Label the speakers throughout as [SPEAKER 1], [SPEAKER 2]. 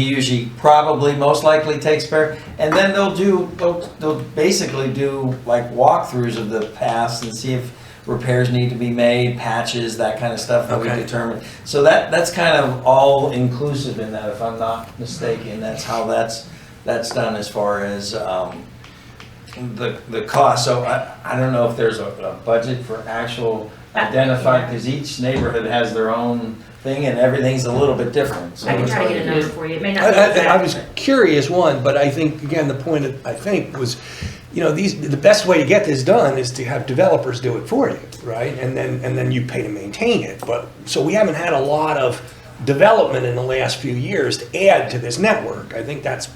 [SPEAKER 1] He usually probably most likely takes care, and then they'll do, they'll, they'll basically do like walkthroughs of the paths and see if repairs need to be made, patches, that kind of stuff that we
[SPEAKER 2] Okay.
[SPEAKER 1] determine. So that, that's kind of all inclusive in that, if I'm not mistaken, that's how that's, that's done as far as, um, the, the cost, so I, I don't know if there's a, a budget for actual identified, because each neighborhood has their own thing and everything's a little bit different, so.
[SPEAKER 3] I can
[SPEAKER 1] it's
[SPEAKER 3] try to
[SPEAKER 1] like-
[SPEAKER 3] get a number for you, it may not be
[SPEAKER 2] I, I, I
[SPEAKER 3] exact,
[SPEAKER 2] was
[SPEAKER 3] but-
[SPEAKER 2] curious, one, but I think, again, the point, that I think, was, you know, these, the best way to get this done is to have developers do it for you, right? And then, and then you pay to maintain it, but, so we haven't had a lot of development in the last few years to add to this network. I think that's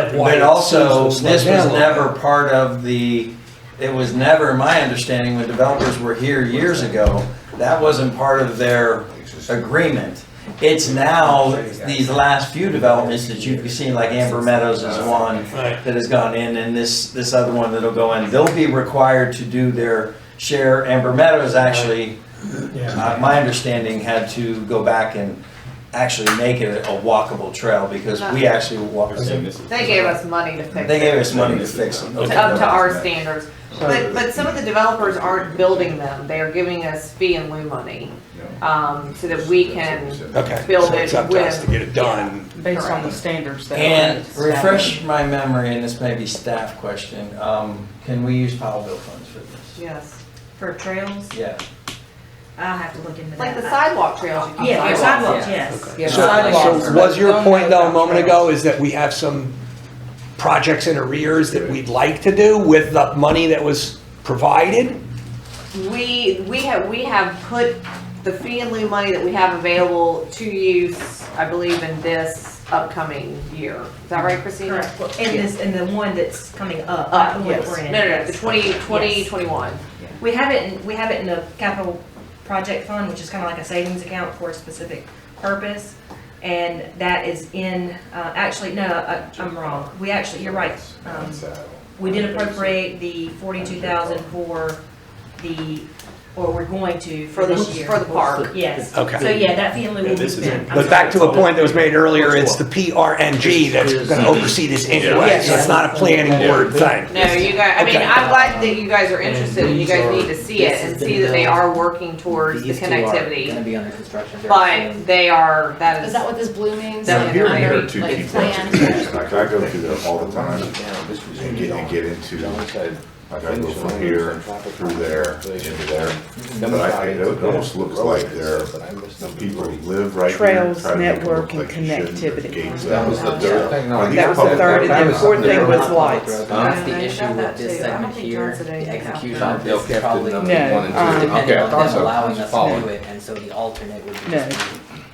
[SPEAKER 1] But,
[SPEAKER 2] of why
[SPEAKER 1] but
[SPEAKER 2] it
[SPEAKER 1] also,
[SPEAKER 2] seems to slow
[SPEAKER 1] this was
[SPEAKER 2] down a little
[SPEAKER 1] never
[SPEAKER 2] bit.
[SPEAKER 1] part of the, it was never, my understanding, when developers were here years ago, that wasn't part of their agreement. It's now, these last few developments that you've seen, like Amber Meadows is one
[SPEAKER 2] Right.
[SPEAKER 1] that has gone in, and this, this other one that'll go in, they'll be required to do their share. Amber Meadows actually, uh, my understanding, had to go back and actually make it a walkable trail, because we actually walked.
[SPEAKER 4] They gave us money to fix
[SPEAKER 1] They
[SPEAKER 4] it,
[SPEAKER 1] gave us money to fix them.
[SPEAKER 4] to- up to our standards. But, but some of the developers aren't building them, they're giving us fee and lieu money, um, so that we can.
[SPEAKER 2] Okay,
[SPEAKER 4] build
[SPEAKER 2] so it's
[SPEAKER 4] it
[SPEAKER 2] up to us
[SPEAKER 4] with-
[SPEAKER 2] to get it done.
[SPEAKER 5] based on the standards that.
[SPEAKER 1] And
[SPEAKER 5] are
[SPEAKER 1] refresh my memory, and this may be staff question, um, can we use Powell bill funds for this?
[SPEAKER 4] Yes,
[SPEAKER 3] For trails,
[SPEAKER 1] Yeah.
[SPEAKER 3] I'll have to look into that.
[SPEAKER 4] like the sidewalk trails. you can
[SPEAKER 3] Yeah, for
[SPEAKER 4] sidewalk.
[SPEAKER 3] sidewalks, yes.
[SPEAKER 5] Yeah,
[SPEAKER 2] So-
[SPEAKER 5] sidewalks
[SPEAKER 2] So
[SPEAKER 5] are-
[SPEAKER 2] was your
[SPEAKER 5] don't
[SPEAKER 2] point
[SPEAKER 5] know
[SPEAKER 2] though a
[SPEAKER 5] about
[SPEAKER 2] moment
[SPEAKER 5] trails.
[SPEAKER 2] ago is that we have some projects in arrears that we'd like to do with the money that was provided?
[SPEAKER 4] We, we have, we have put the fee and lieu money that we have available to use, I believe, in this upcoming year. Is that right, Christina?
[SPEAKER 3] Correct, Well, and this, and the one that's coming up. I
[SPEAKER 4] Uh,
[SPEAKER 3] believe
[SPEAKER 4] yes,
[SPEAKER 3] we're
[SPEAKER 4] no,
[SPEAKER 3] in.
[SPEAKER 4] no, no, the twenty, twenty,
[SPEAKER 3] Yes.
[SPEAKER 4] twenty-one.
[SPEAKER 3] We have it, in- we have it in the capital project fund, which is kind of like a savings account for a specific purpose. And that is in, uh, actually, no, I- I'm wrong. We actually, you're right. Um,
[SPEAKER 6] uh,
[SPEAKER 3] We did appropriate the forty-two thousand for the, or we're going to
[SPEAKER 4] For
[SPEAKER 3] for
[SPEAKER 4] the,
[SPEAKER 3] this year.
[SPEAKER 4] for the park.
[SPEAKER 3] Yes.
[SPEAKER 2] Okay.
[SPEAKER 3] So yeah, that fee and lieu will be
[SPEAKER 7] this is
[SPEAKER 3] spent.
[SPEAKER 2] But back to a point that was made earlier, it's the PRNG that's gonna oversee this anyway, so it's not a planning board thing.
[SPEAKER 4] No, you guys, I mean,
[SPEAKER 2] Okay.
[SPEAKER 4] I'm glad that you guys are interested and you
[SPEAKER 8] these
[SPEAKER 4] guys
[SPEAKER 8] are-
[SPEAKER 4] need to see it
[SPEAKER 8] this
[SPEAKER 4] and
[SPEAKER 8] has been
[SPEAKER 4] see that they
[SPEAKER 8] done.
[SPEAKER 4] are working towards the
[SPEAKER 8] These two are Gonna
[SPEAKER 4] connectivity.
[SPEAKER 8] be under construction very soon.
[SPEAKER 4] But they are, that
[SPEAKER 9] Is
[SPEAKER 4] is,
[SPEAKER 9] that what this blue means?
[SPEAKER 4] That
[SPEAKER 9] Like,
[SPEAKER 4] here and
[SPEAKER 9] they're
[SPEAKER 7] here are two
[SPEAKER 9] like
[SPEAKER 7] key
[SPEAKER 9] planned?
[SPEAKER 6] Like I go through that all the time and get, and get into, like I go from here, through there, into there. But I, it almost looks like they're, the people who live right here.
[SPEAKER 5] Trails,
[SPEAKER 6] try to make it look
[SPEAKER 5] network, and
[SPEAKER 6] like they shouldn't, there's
[SPEAKER 5] connectivity.
[SPEAKER 6] gates
[SPEAKER 7] That was the
[SPEAKER 6] out.
[SPEAKER 7] third
[SPEAKER 6] Are
[SPEAKER 7] thing.
[SPEAKER 6] these
[SPEAKER 5] That was the
[SPEAKER 6] public-
[SPEAKER 5] third, and the fourth thing was
[SPEAKER 8] They're
[SPEAKER 5] lights.
[SPEAKER 8] That's
[SPEAKER 4] Yeah,
[SPEAKER 8] the
[SPEAKER 4] they
[SPEAKER 8] issue
[SPEAKER 4] showed that
[SPEAKER 8] with this
[SPEAKER 4] too. I don't
[SPEAKER 8] segment
[SPEAKER 4] think
[SPEAKER 8] here,
[SPEAKER 4] Johnson did
[SPEAKER 8] the
[SPEAKER 4] anything about
[SPEAKER 8] execution
[SPEAKER 4] that.
[SPEAKER 8] of this is probably
[SPEAKER 5] No, um,
[SPEAKER 8] dependent
[SPEAKER 7] Okay, I
[SPEAKER 8] on
[SPEAKER 7] thought
[SPEAKER 8] them
[SPEAKER 7] so.
[SPEAKER 8] allowing us to
[SPEAKER 7] Following.
[SPEAKER 8] do it, and so the alternate would be.
[SPEAKER 5] No, um,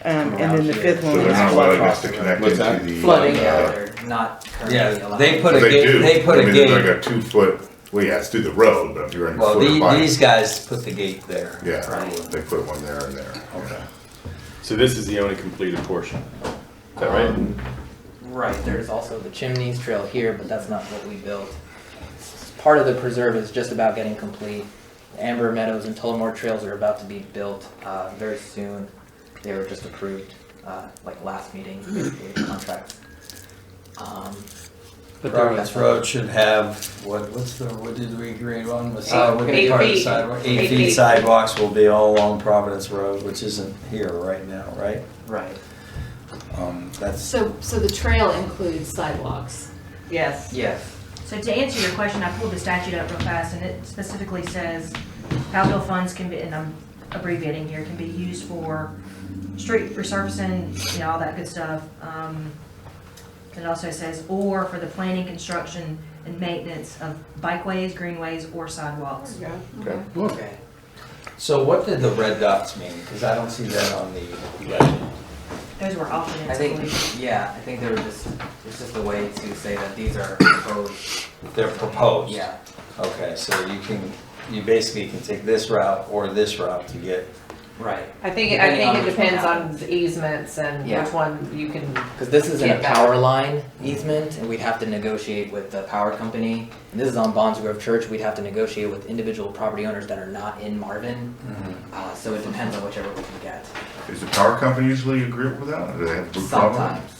[SPEAKER 5] And then the fifth
[SPEAKER 6] So
[SPEAKER 5] one
[SPEAKER 6] they're
[SPEAKER 5] was
[SPEAKER 6] not allowing us to
[SPEAKER 5] floodwalks.
[SPEAKER 6] connect
[SPEAKER 7] What's
[SPEAKER 6] into
[SPEAKER 7] that?
[SPEAKER 6] the.
[SPEAKER 8] Flooding,
[SPEAKER 6] uh,
[SPEAKER 8] they're not currently
[SPEAKER 1] Yeah,
[SPEAKER 8] allowed.
[SPEAKER 1] they put a
[SPEAKER 6] They do.
[SPEAKER 1] gate, they put
[SPEAKER 6] I
[SPEAKER 1] a
[SPEAKER 6] mean, Like
[SPEAKER 1] gate,
[SPEAKER 6] a two foot, well, yeah, it's through the road, but if you're in a
[SPEAKER 1] well,
[SPEAKER 6] foot of
[SPEAKER 1] the-
[SPEAKER 6] bike-
[SPEAKER 1] these guys put the gate there.
[SPEAKER 6] Yeah,
[SPEAKER 1] Right.
[SPEAKER 6] they put one there and there. Okay.
[SPEAKER 7] So this is the only completed portion. Is that right?
[SPEAKER 8] Um, Right, there's also the chimneys trail here, but that's not what we built. Part of the preserve is just about getting complete. Amber Meadows and Tullamore Trails are about to be built uh, very soon. They were just approved, uh, like last meeting, basically, contracts. Um,
[SPEAKER 1] But Providence Road should have, what, what's the, what did we agree on? The side- what
[SPEAKER 4] Eight
[SPEAKER 1] part of the
[SPEAKER 4] feet.
[SPEAKER 1] sidewalk-
[SPEAKER 4] Eight
[SPEAKER 1] Eight feet
[SPEAKER 4] feet.
[SPEAKER 1] sidewalks will be all along Providence Road, which isn't here right now, right?
[SPEAKER 8] right,
[SPEAKER 1] Um, that's,
[SPEAKER 9] So, so the trail includes sidewalks.
[SPEAKER 4] yes.
[SPEAKER 8] yes.
[SPEAKER 3] So to answer your question, I pulled the statute up real fast, and it specifically says, Powell bill funds can be, and I'm abbreviating here, can be used for street resurfacing, you know, all that good stuff. Um, It also says, or for the planning, construction, and maintenance of bikeways, greenways, or sidewalks.
[SPEAKER 8] Okay.
[SPEAKER 1] so what did the red dots mean? Because I don't see that on the legend.
[SPEAKER 3] Those were alternate
[SPEAKER 8] I think,
[SPEAKER 3] solutions.
[SPEAKER 8] yeah, I think they were just, it's just a way to say that these are proposed,
[SPEAKER 1] They're proposed.
[SPEAKER 8] yeah.
[SPEAKER 1] Okay, so you can, you basically can take this route or this route to get,
[SPEAKER 8] Right,
[SPEAKER 4] I think, I think it
[SPEAKER 8] Depending on which one
[SPEAKER 4] depends on the easements and
[SPEAKER 8] Yeah.
[SPEAKER 4] which one you can,
[SPEAKER 8] because this isn't a
[SPEAKER 4] Get that.
[SPEAKER 8] power line easement, and we'd have to negotiate with the power company. And this is on Bonds Grove Church, we'd have to negotiate with individual property owners that are not in Marvin, uh, so it depends on whichever we can get,
[SPEAKER 6] Is the power company usually agree with that? Do they have a problem?
[SPEAKER 8] sometimes.